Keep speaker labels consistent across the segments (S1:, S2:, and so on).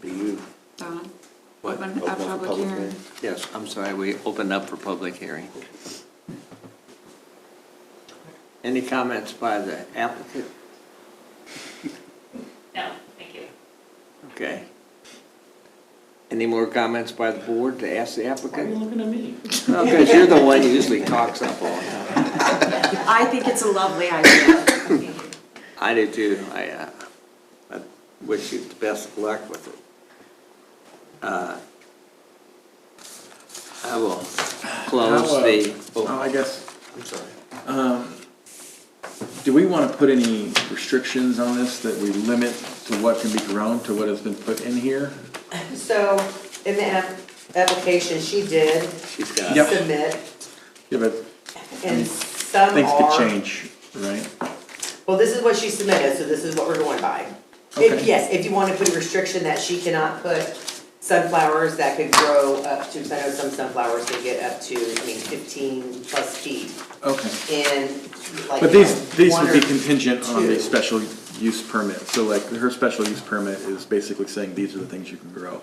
S1: be you.
S2: Don?
S3: What?
S2: Open
S1: Open
S2: a
S1: up the
S2: Oh, public hearing.
S1: Yes,
S3: I'm sorry, we opened up for public hearing. Any comments by the applicant?
S4: No, thank you.
S3: Okay. Any more comments by the board to ask the applicant?
S5: looking at me?
S3: Because you're the one who usually talks up all the time.
S6: I think it's a lovely idea.
S4: Thank you.
S3: I do too. I, uh, I wish you the best of luck with it. Uh, I will close
S5: How, uh,
S3: the,
S5: Oh,
S3: oh,
S5: I guess,
S1: I'm sorry.
S5: um, do we want to put any restrictions on this that we limit to what can be grown, to what has been put in here?
S7: So in the app- application, she did
S3: she's got
S5: Yep.
S3: it.
S7: submit,
S5: Yeah, but
S7: and some
S5: things could
S7: are.
S5: change, right?
S7: Well, this is what she submitted, so this is what we're going by.
S5: Okay.
S7: If, yes, if you want to put a restriction that she cannot put sunflowers that could grow up to, 'cause I know some sunflowers can get up to, I mean, fifteen plus feet
S5: Okay.
S7: in like.
S5: But these, these
S7: one
S5: would be
S7: or
S5: contingent on the
S7: two.
S5: special use permit. So like, her special use permit is basically saying these are the things you can grow.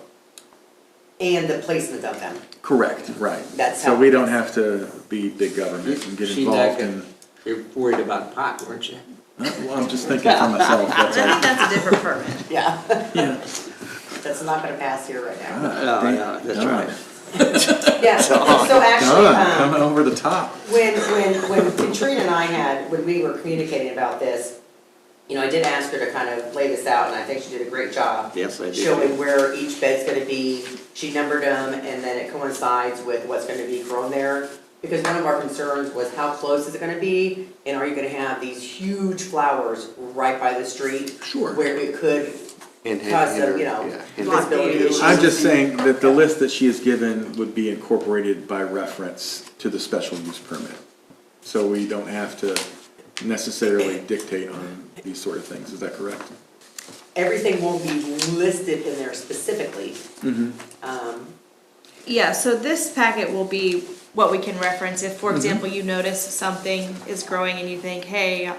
S7: And the placement of them.
S5: Correct, right.
S7: That's
S5: So
S7: how
S5: we
S7: it
S5: don't
S7: is.
S5: have to be big government and get
S3: She's not
S5: involved
S3: gonna-
S5: in,
S3: You're worried about pot, weren't you?
S5: well, I'm just thinking for myself, that's all.
S6: that's a different permit.
S7: Yeah,
S5: Yeah.
S7: that's not gonna pass here right now.
S3: No, no, that's
S5: Darn.
S3: right.
S7: Yeah, so actually,
S5: Done,
S7: um,
S5: coming over the top.
S7: When, when, when Katrina and I had, when we were communicating about this, you know, I did ask her to kind of lay this out, and I think she did a great job.
S3: Yes, I did.
S7: Showing where each bed's gonna be, she numbered them, and then it coincides with what's gonna be grown there. Because one of our concerns was how close is it gonna be, and are you gonna have these huge flowers right by the street?
S5: Sure.
S7: Where it could
S3: And had-
S7: cause
S3: had her-
S7: some, you know,
S3: yeah, had her-
S7: visibility issues.
S5: I'm just saying that the list that she has given would be incorporated by reference to the special use permit. So we don't have to necessarily dictate on these sort of things, is that correct?
S7: Everything won't be listed in there specifically. Um,
S2: Yeah, so this packet will be what we can reference if,
S5: Mm-hmm.
S2: for example, you notice something is growing and you think, hey,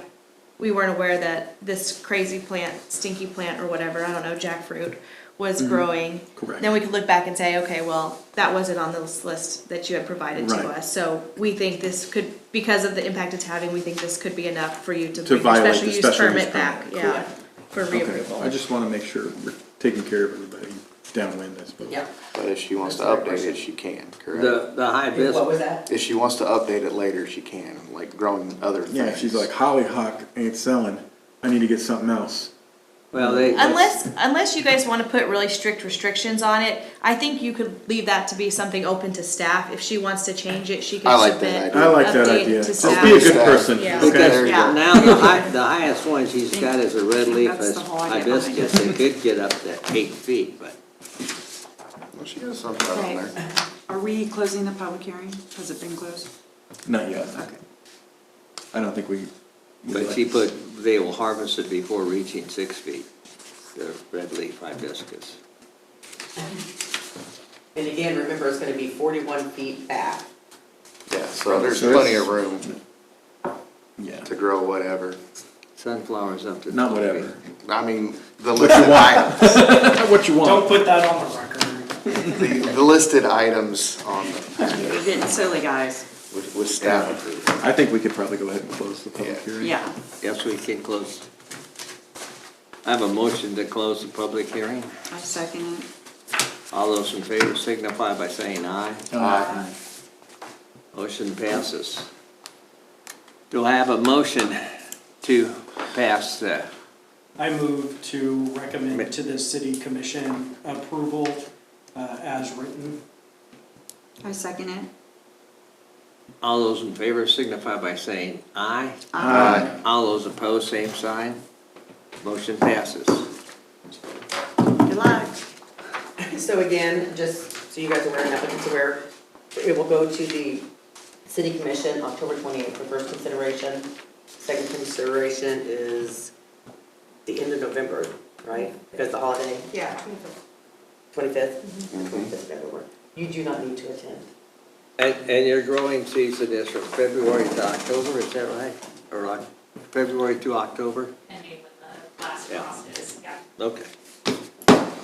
S2: we weren't aware that this crazy plant, stinky plant or whatever, I don't know, jackfruit, was growing.
S5: Mm-hmm. Correct.
S2: Then we could look back and say, okay, well, that wasn't on this list that you had provided to
S5: Right.
S2: us. So we think this could, because of the impact it's having, we think this could be enough for you to
S5: To
S2: bring your
S5: violate the
S2: special use
S5: special use
S2: permit back,
S5: permit,
S2: yeah, for
S5: Okay, I
S2: reapproval.
S5: just want to make sure we're taking care of everybody downwind, I suppose.
S7: yeah.
S1: But if she wants to
S7: That's a great
S1: update
S7: question.
S1: it, she can, correct?
S3: The, the high vis,
S7: What was that?
S1: If she wants to update it later, she can, like growing other things.
S5: Yeah, if she's like hollyhock ain't selling, I need to get something else.
S3: well, they.
S2: Unless, unless you guys wanna put really strict restrictions on it, I think you could leave that to be something open to staff. If she wants to change it, she
S1: I
S2: can
S1: like that
S2: submit.
S1: idea.
S5: I like that
S2: Update to
S5: idea. Just
S2: staff.
S5: be a good person,
S2: Yeah.
S5: okay?
S1: There
S3: Because
S1: you
S2: Yeah.
S1: go.
S3: now the high, the highest one she's got is a red
S2: think
S3: leaf
S2: that's the whole idea behind
S3: hibiscus. It could get up to eight feet, but
S1: Well, she has something on
S2: Right.
S1: there.
S6: Are we closing the public hearing? Has it been closed?
S5: Not yet. I don't think we.
S3: But she put, they will harvest it before reaching six feet, the red leaf hibiscus.
S7: And again, remember, it's gonna be forty-one feet back.
S1: Yeah, so there's
S5: So
S1: plenty
S5: it's-
S1: of room
S5: Yeah,
S1: to grow whatever.
S3: Sunflowers up to.
S5: not
S3: 12 feet.
S5: whatever.
S1: I mean, the listed items,
S5: Not what you want.
S8: put that on the record.
S1: the the listed items on,
S6: You're getting silly, guys.
S1: with, with staff approval.
S5: I think we could probably go ahead and close the public
S1: Yeah.
S5: hearing.
S6: Yeah.
S3: Yes, we can close. I have a motion to close the public hearing.
S6: I second it.
S3: All those in favor signify by saying aye.
S1: Aye.
S3: Motion passes. Do I have a motion to pass the,
S8: I move to recommend to the city commission approval uh, as written.
S6: I second it.
S3: all those in favor signify by saying aye.
S1: Aye.
S3: All those opposed, same sign. Motion passes.
S6: Good luck.
S7: So again, just so you guys are aware, and applicants are aware, it will go to the city commission October twenty-eighth for first consideration. Second consideration is the end of November, right? Because the holiday,
S2: Yeah.
S7: twenty-fifth? Twenty-fifth, that would work. You do not need to attend.
S3: And, and your growing season is from February to October, is that right? Or Oc- February to October?
S4: Ending with the last
S3: Yeah.
S4: frost is, yeah.
S3: Okay.